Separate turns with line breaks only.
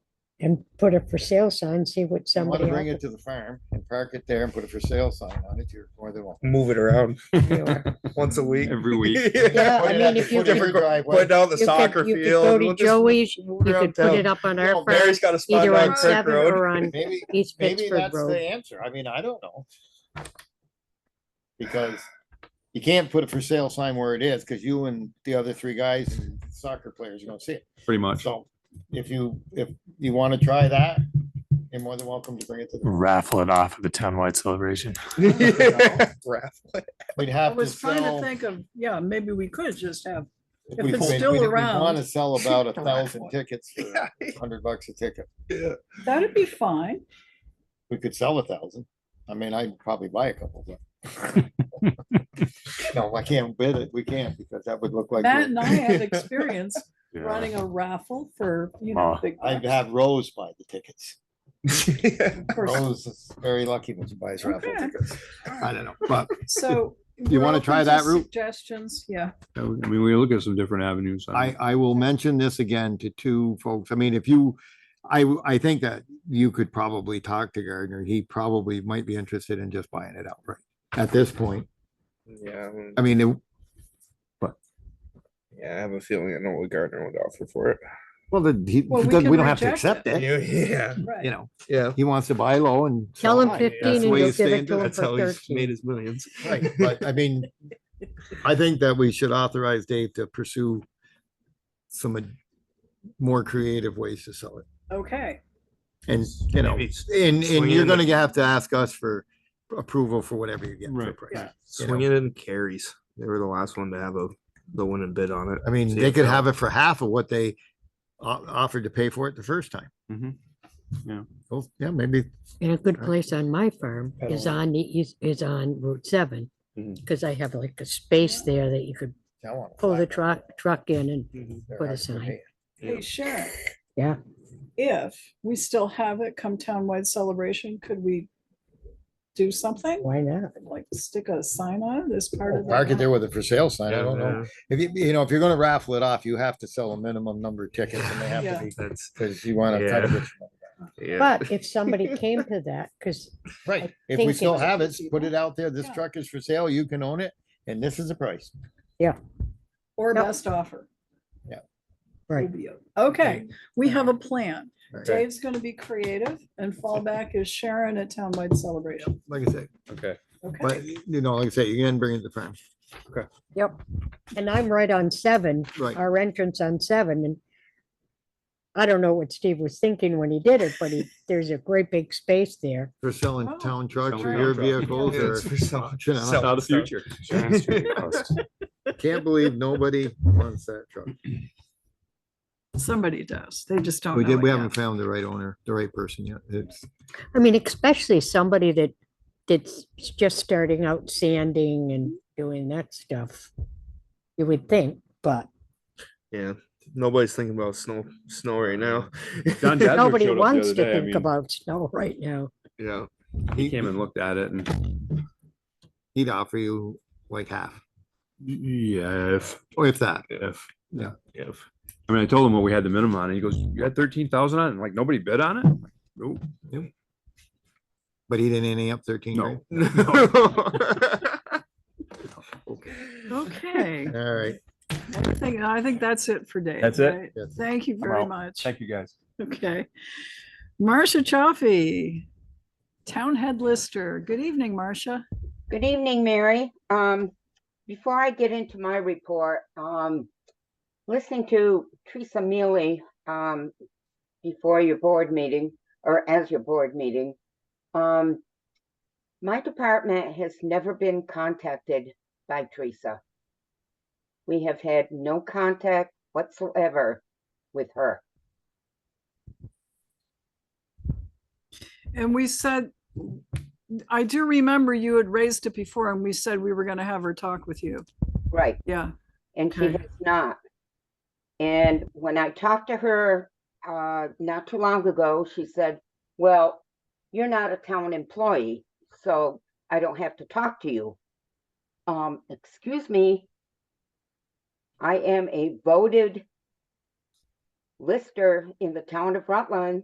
and put a for sale sign, see what
You wanna
somebody
bring
else.
it to the farm and park it there and put a for sale sign on it, you're more than welcome.
move it around
would do.
once a week.
Every week.
Yeah,
Yeah.
I
Put it
mean,
at the
if you
foot of
could-
your driveway.
Put down the
You
soccer
could, you could
field.
go
we'll
to
just-
Joey's, you
it
could put
downtown.
it up on
Yeah,
our
Mary's
farm,
got a spot
either
down
on
Kirk
Seven
Road.
or on
Maybe,
East
maybe
Pittsburgh
that's the
Road.
answer. I mean, I don't know. Because you can't put a for sale sign where it is, because you and the other three guys, and soccer players, are gonna see it.
Pretty much.
So if you, if you wanna try that, you're more than welcome to bring it to the.
raffle it off at the townwide celebration.
Raffle.
We'd
I
have to
was trying to
sell.
think of, yeah, maybe we could just have, if
we-
it's
we-
still
we- we
around.
Wanna sell about a
Don't
thousand
want
tickets for
Yeah.
a hundred bucks a ticket.
Yeah.
that'd be fine.
We could sell a thousand. I mean, I'd probably buy a couple, but. No, I can't bid it. We can't because that would look like.
Matt
we're-
and I have experience
Yeah.
running a raffle for, you know,
Oh.
big.
I'd
bucks.
have Rose buy the tickets.
Of course.
Rose is very lucky when she buys raffle
Okay.
tickets. I don't know, but
So.
You
we're
wanna
open
try
to
that route?
Suggestions, yeah.
I mean, we look at some different avenues.
I, I will mention this again to two folks. I mean, if you, I, w- I think that you could probably talk to Gardner. He probably might be interested in just buying it outright at this point.
Yeah, I mean,
I mean, it-
yeah, I have a feeling I know what Gardner would offer for it.
well, the, he,
Well, we
because
can
we don't have to accept
reject it.
it,
Yeah,
Right.
you know,
yeah.
he wants to buy low and.
Tell
sell
him
high.
fifteen
That's
and
the way
you'll
he's
give it
staying.
to him
That's how
for
he's made
thirteen.
his millions.
Right, but I mean, I think that we should authorize Dave to pursue some ad- more creative ways to sell it.
Okay,
And, you know,
Maybe
and,
swing
and
it
you're
in the-
gonna have to ask us for approval for whatever you get for
Right.
price.
Swinging in carries. They were the last one to have a the winning bid on it.
I mean,
See
they
if
could
they'll-
have it for half of what they o- offered to pay for it the first time.
Mhm. Yeah.
Well, yeah, maybe,
And a good place on my farm
I don't
is
know.
on, the east is on Route seven.
Mhm.
Cause I have like a space there that you could pull the truck, truck in and put a sign.
hey, Sharon.
Yeah.
If we still have it come townwide celebration, could we do something?
Why not?
Like stick a sign on it as part of. the
Park it there
raffle?
with a for sale sign. I
Yeah,
don't know.
yeah,
If you, you know, if you're gonna raffle it off, you have to sell a minimum number of tickets and they have
Yeah.
to be,
That's
because you wanna try to
Yeah.
get. your money.
yeah.
But if somebody came to that, cause
Right, if
think
we
it
still
was
have it,
easy.
put it out there, this
Yeah.
truck is for sale, you can own it, and this is the price.
Or
Yep.
best offer.
Yeah.
Right.
Would be o- Okay, we have a plan.
Right.
Dave's gonna be creative and fallback is Sharon at townwide celebration.
Like I said,
okay.
Okay,
but you know, like I said, you can bring it to farm,
Yep. And I'm right on seven,
right?
our entrance on seven and I don't know what Steve was thinking when he did it, but he, there's a great big space there.
For selling
Oh,
town trucks or
selling
your
town trucks.
vehicles
Yeah, it's
or,
for some-
you know,
some-
Out of the future.
Sharon Street post.
can't believe nobody wants that truck.
somebody does. They just
Oh,
don't
We
know
did, we
it
haven't
yet.
found the right owner, the right person yet. It's,
I mean, especially somebody that, that's just starting out sanding and doing that stuff. You would think, but
Yeah. Nobody's thinking about snow snow right now.
John Jasper
nobody
showed up the
wants
other
to
day, I
think
mean,
about snow right now.
you know.
He came and looked at it and,
he'd offer you like half,
yeah, if,
or if that.
if.
Yeah.
If. I mean, I told him what we had the minimum on. and He goes, you had thirteen thousand on it? And, Like, nobody bid on it? I'm like, Nope.
But he didn't end up thirteen, right?
No. No.
Okay,
All right.
I think, I think that's it for Dave.
That's it?
right?
Yes.
Thank you very
out.
much.
Thank you, guys.
Okay. Marcia Chaffee, Town Head Lister. Good evening, Marcia.
Good evening, Mary. Um, before I get into my report, um, listening to Teresa Mealy, um, before your board meeting or as your board meeting, um, my department has never been contacted by Teresa. We have had no contact whatsoever with her.
And we said, I do remember you had raised it before and we said we were gonna have her talk with you.
Right.
Yeah,
and she
Okay.
has not. And when I talked to her uh, not too long ago, she said, "Well, you're not a town employee, so I don't have to talk to you." Um, excuse me. I am a voted lister in the town of Rutland.